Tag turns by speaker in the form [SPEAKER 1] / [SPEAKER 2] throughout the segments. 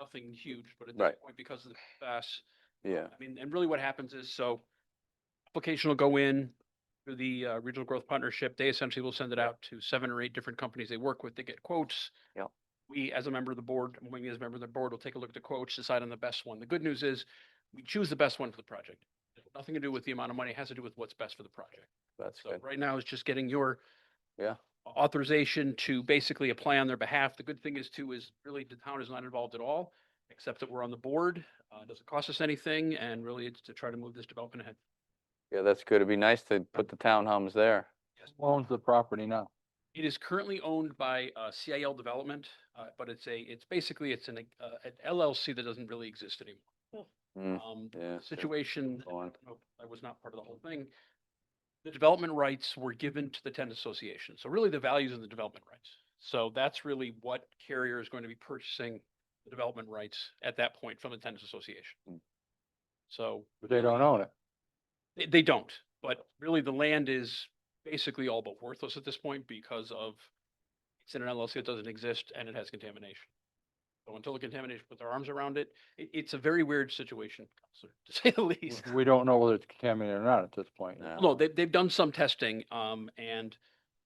[SPEAKER 1] nothing huge, but at this
[SPEAKER 2] Right.
[SPEAKER 1] point, because of the PFAS,
[SPEAKER 2] yeah,
[SPEAKER 1] I mean, and really what happens is, so application will go in through the uh, Regional Growth Partnership. They essentially will send it out to seven or eight different companies they work with. They get quotes.
[SPEAKER 2] Yep.
[SPEAKER 1] We, as a member of the board, we as a member of the board, will take a look at the quotes, decide on the best one. The good news is we choose the best one for the project. It has Nothing to do with the amount of money, it has to do with what's best for the project.
[SPEAKER 2] that's
[SPEAKER 1] So
[SPEAKER 2] good.
[SPEAKER 1] right now it's just getting your
[SPEAKER 2] Yeah.
[SPEAKER 1] authorization to basically apply on their behalf. The good thing is too, is really the town is not involved at all, except that we're on the board. Uh, it doesn't cost us anything and really it's to try to move this development ahead.
[SPEAKER 2] Yeah, that's good. It'd be nice to put the townhomes there.
[SPEAKER 3] owns the property now?
[SPEAKER 1] It is currently owned by, uh, CIL Development, uh, but it's a, it's basically, it's an, uh, an LLC that doesn't really exist anymore.
[SPEAKER 2] Mm,
[SPEAKER 1] Um, the
[SPEAKER 2] Yeah. sure.
[SPEAKER 1] situation,
[SPEAKER 2] Go on.
[SPEAKER 1] no, I was not part of the whole thing. The development rights were given to the tenant association. So really the values of the development rights. So that's really what carrier is going to be purchasing the development rights at that point from the tenants association.
[SPEAKER 2] Mm.
[SPEAKER 1] So
[SPEAKER 3] But they don't own it.
[SPEAKER 1] they, they don't, but really the land is basically all but worthless at this point because of it's in an LLC that doesn't exist and it has contamination. So until the contamination puts their arms around it, it, it's a very weird situation, to say the least.
[SPEAKER 3] We don't know whether it's contaminated or not at this point.
[SPEAKER 2] No, I
[SPEAKER 1] No, they, they've done some testing, um, and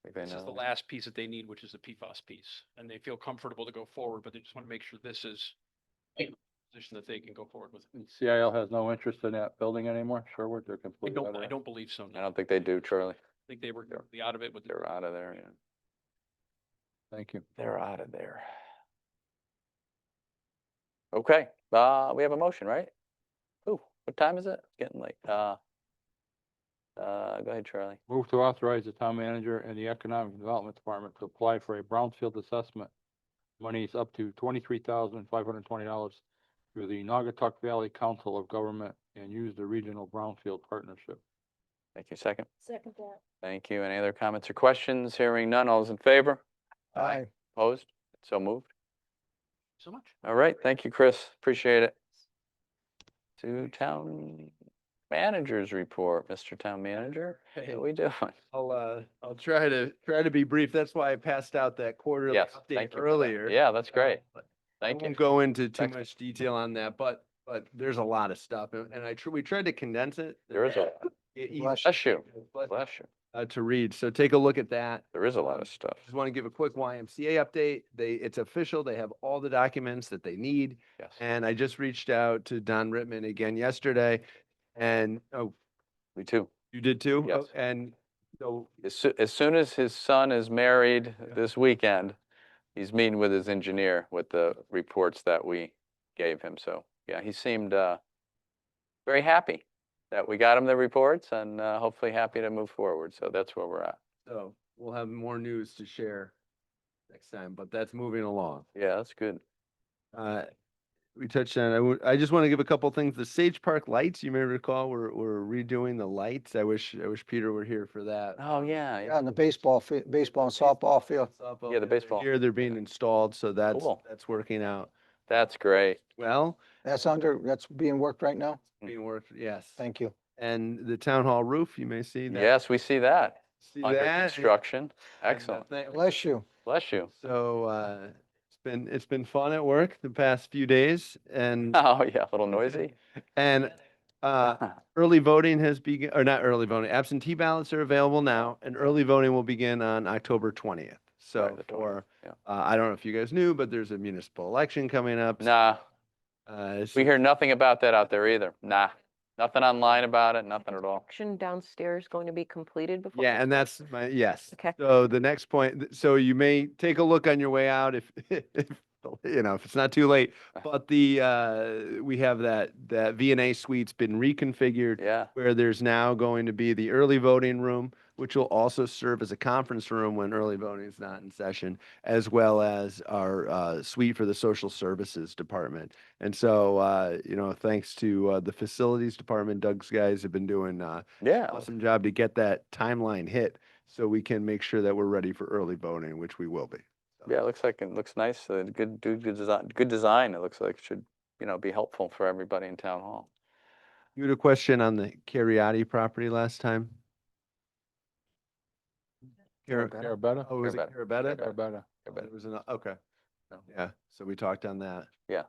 [SPEAKER 2] think they
[SPEAKER 1] this is the
[SPEAKER 2] know.
[SPEAKER 1] last piece that they need, which is the PFAS piece. And they feel comfortable to go forward, but they just want to make sure this is a position that they can go forward with.
[SPEAKER 3] And CIL has no interest in that building anymore, Sherwood, they're
[SPEAKER 1] I
[SPEAKER 3] completely out
[SPEAKER 1] don't,
[SPEAKER 3] of
[SPEAKER 1] I
[SPEAKER 3] it.
[SPEAKER 1] don't believe so. no.
[SPEAKER 2] I don't think they do, Charlie.
[SPEAKER 1] I think they were completely out of it with the
[SPEAKER 2] They're out of there, yeah.
[SPEAKER 3] Thank you.
[SPEAKER 2] They're out of there. Okay, uh, we have a motion, right? Ooh, what time is it? It's Getting late. Uh, uh, go ahead, Charlie.
[SPEAKER 3] Move to authorize the town manager and the economic development department to apply for a brownfield assessment. Monies up to twenty-three thousand five hundred and twenty dollars through the Naugatuck Valley Council of Government and use the regional brownfield partnership.
[SPEAKER 2] Thank you. Second.
[SPEAKER 4] Second that.
[SPEAKER 2] Thank you. Any other comments or questions? Hearing none. All those in favor? Aye. Opposed? So moved.
[SPEAKER 1] so much.
[SPEAKER 2] All right, thank you, Chris. Appreciate it. To town managers report, Mr. Town Manager,
[SPEAKER 5] Hey,
[SPEAKER 2] how we doing?
[SPEAKER 5] I'll, uh, I'll try to, try to be brief. That's why I passed out that quarterly
[SPEAKER 2] Yes,
[SPEAKER 5] update
[SPEAKER 2] thank you. for that.
[SPEAKER 5] earlier.
[SPEAKER 2] Yeah, that's
[SPEAKER 5] Uh,
[SPEAKER 2] great.
[SPEAKER 5] but I
[SPEAKER 2] Thank you.
[SPEAKER 5] won't go into too
[SPEAKER 2] Thank-
[SPEAKER 5] much detail on that, but, but there's a lot of stuff and and I, tr- we tried to condense it.
[SPEAKER 2] There is a,
[SPEAKER 5] e- easy
[SPEAKER 2] bless you,
[SPEAKER 5] but,
[SPEAKER 2] bless you.
[SPEAKER 5] Uh, to read. So take a look at that.
[SPEAKER 2] There is a lot of stuff.
[SPEAKER 5] Just want to give a quick YMCA update. They, it's official. They have all the documents that they need.
[SPEAKER 2] Yes.
[SPEAKER 5] And I just reached out to Don Rittman again yesterday and, oh,
[SPEAKER 2] Me too.
[SPEAKER 5] you did too? Oh,
[SPEAKER 2] Yes.
[SPEAKER 5] And so
[SPEAKER 2] As soo- as soon as his son is married this weekend, he's meeting with his engineer with the reports that we gave him. So, yeah, he seemed, uh, very happy that we got him the reports and, uh, hopefully happy to move forward. So that's where we're at.
[SPEAKER 5] So we'll have more news to share next time, but that's moving along.
[SPEAKER 2] Yeah, that's good.
[SPEAKER 5] Uh, we touched on, I would, I just want to give a couple things. The Sage Park lights, you may recall, we're, we're redoing the lights. I wish, I wish Peter were here for that.
[SPEAKER 2] Oh, yeah,
[SPEAKER 6] Yeah,
[SPEAKER 2] yeah,
[SPEAKER 6] and the baseball, fi- baseball and softball field.
[SPEAKER 5] Softball,
[SPEAKER 2] Yeah, the
[SPEAKER 5] they're
[SPEAKER 2] baseball.
[SPEAKER 5] Here, they're being installed, so that's,
[SPEAKER 2] Cool.
[SPEAKER 5] that's working out
[SPEAKER 2] that's great.
[SPEAKER 5] well.
[SPEAKER 6] That's under, that's being worked right now?
[SPEAKER 2] Mm.
[SPEAKER 5] Being worked, yes.
[SPEAKER 6] Thank you.
[SPEAKER 5] And the town hall roof, you may see that.
[SPEAKER 2] Yes, we see that
[SPEAKER 5] See
[SPEAKER 2] under
[SPEAKER 5] that? and-
[SPEAKER 2] construction.
[SPEAKER 5] and the
[SPEAKER 2] Excellent.
[SPEAKER 5] thing-
[SPEAKER 6] Bless you.
[SPEAKER 2] Bless you.
[SPEAKER 5] So, uh, it's been, it's been fun at work the past few days and,
[SPEAKER 2] Oh, yeah, a little noisy.
[SPEAKER 5] and, uh, early voting has begun, or not early voting, absentee ballots are available now, and early voting will begin on October twentieth. So
[SPEAKER 2] the 20th,
[SPEAKER 5] for,
[SPEAKER 2] yeah.
[SPEAKER 5] uh, I don't know if you guys knew, but there's a municipal election coming up.
[SPEAKER 2] Nah,
[SPEAKER 5] Uh, so
[SPEAKER 2] we hear nothing about that out there either. Nah, nothing online about it, nothing at all.
[SPEAKER 7] Action downstairs going to be completed before?
[SPEAKER 5] Yeah, and that's my, yes.
[SPEAKER 7] Okay.
[SPEAKER 5] So the next point, th- so you may take a look on your way out if, if, you know, if it's not too late.
[SPEAKER 2] Uh.
[SPEAKER 5] But the, uh, we have that, that V and A suite's been reconfigured
[SPEAKER 2] Yeah,
[SPEAKER 5] where there's now going to be the early voting room, which will also serve as a conference room when early voting is not in session, as well as our uh, suite for the social services department. And so, uh, you know, thanks to uh, the facilities department, Doug's guys have been doing uh,
[SPEAKER 2] yeah.
[SPEAKER 5] awesome job to get that timeline hit so we can make sure that we're ready for early voting, which we will be.
[SPEAKER 2] Yeah, it looks like, it looks nice. uh, Good, good, good design, good design. It looks like should, you know, be helpful for everybody in town hall.
[SPEAKER 5] You had a question on the Cariotti property last time? Car-
[SPEAKER 3] Carabetta?
[SPEAKER 5] Oh, was it
[SPEAKER 2] Carabetta.
[SPEAKER 5] Carabetta?
[SPEAKER 3] Carabetta.
[SPEAKER 5] There was an, okay.
[SPEAKER 2] So-
[SPEAKER 5] Yeah, so we talked on that.
[SPEAKER 2] Yeah.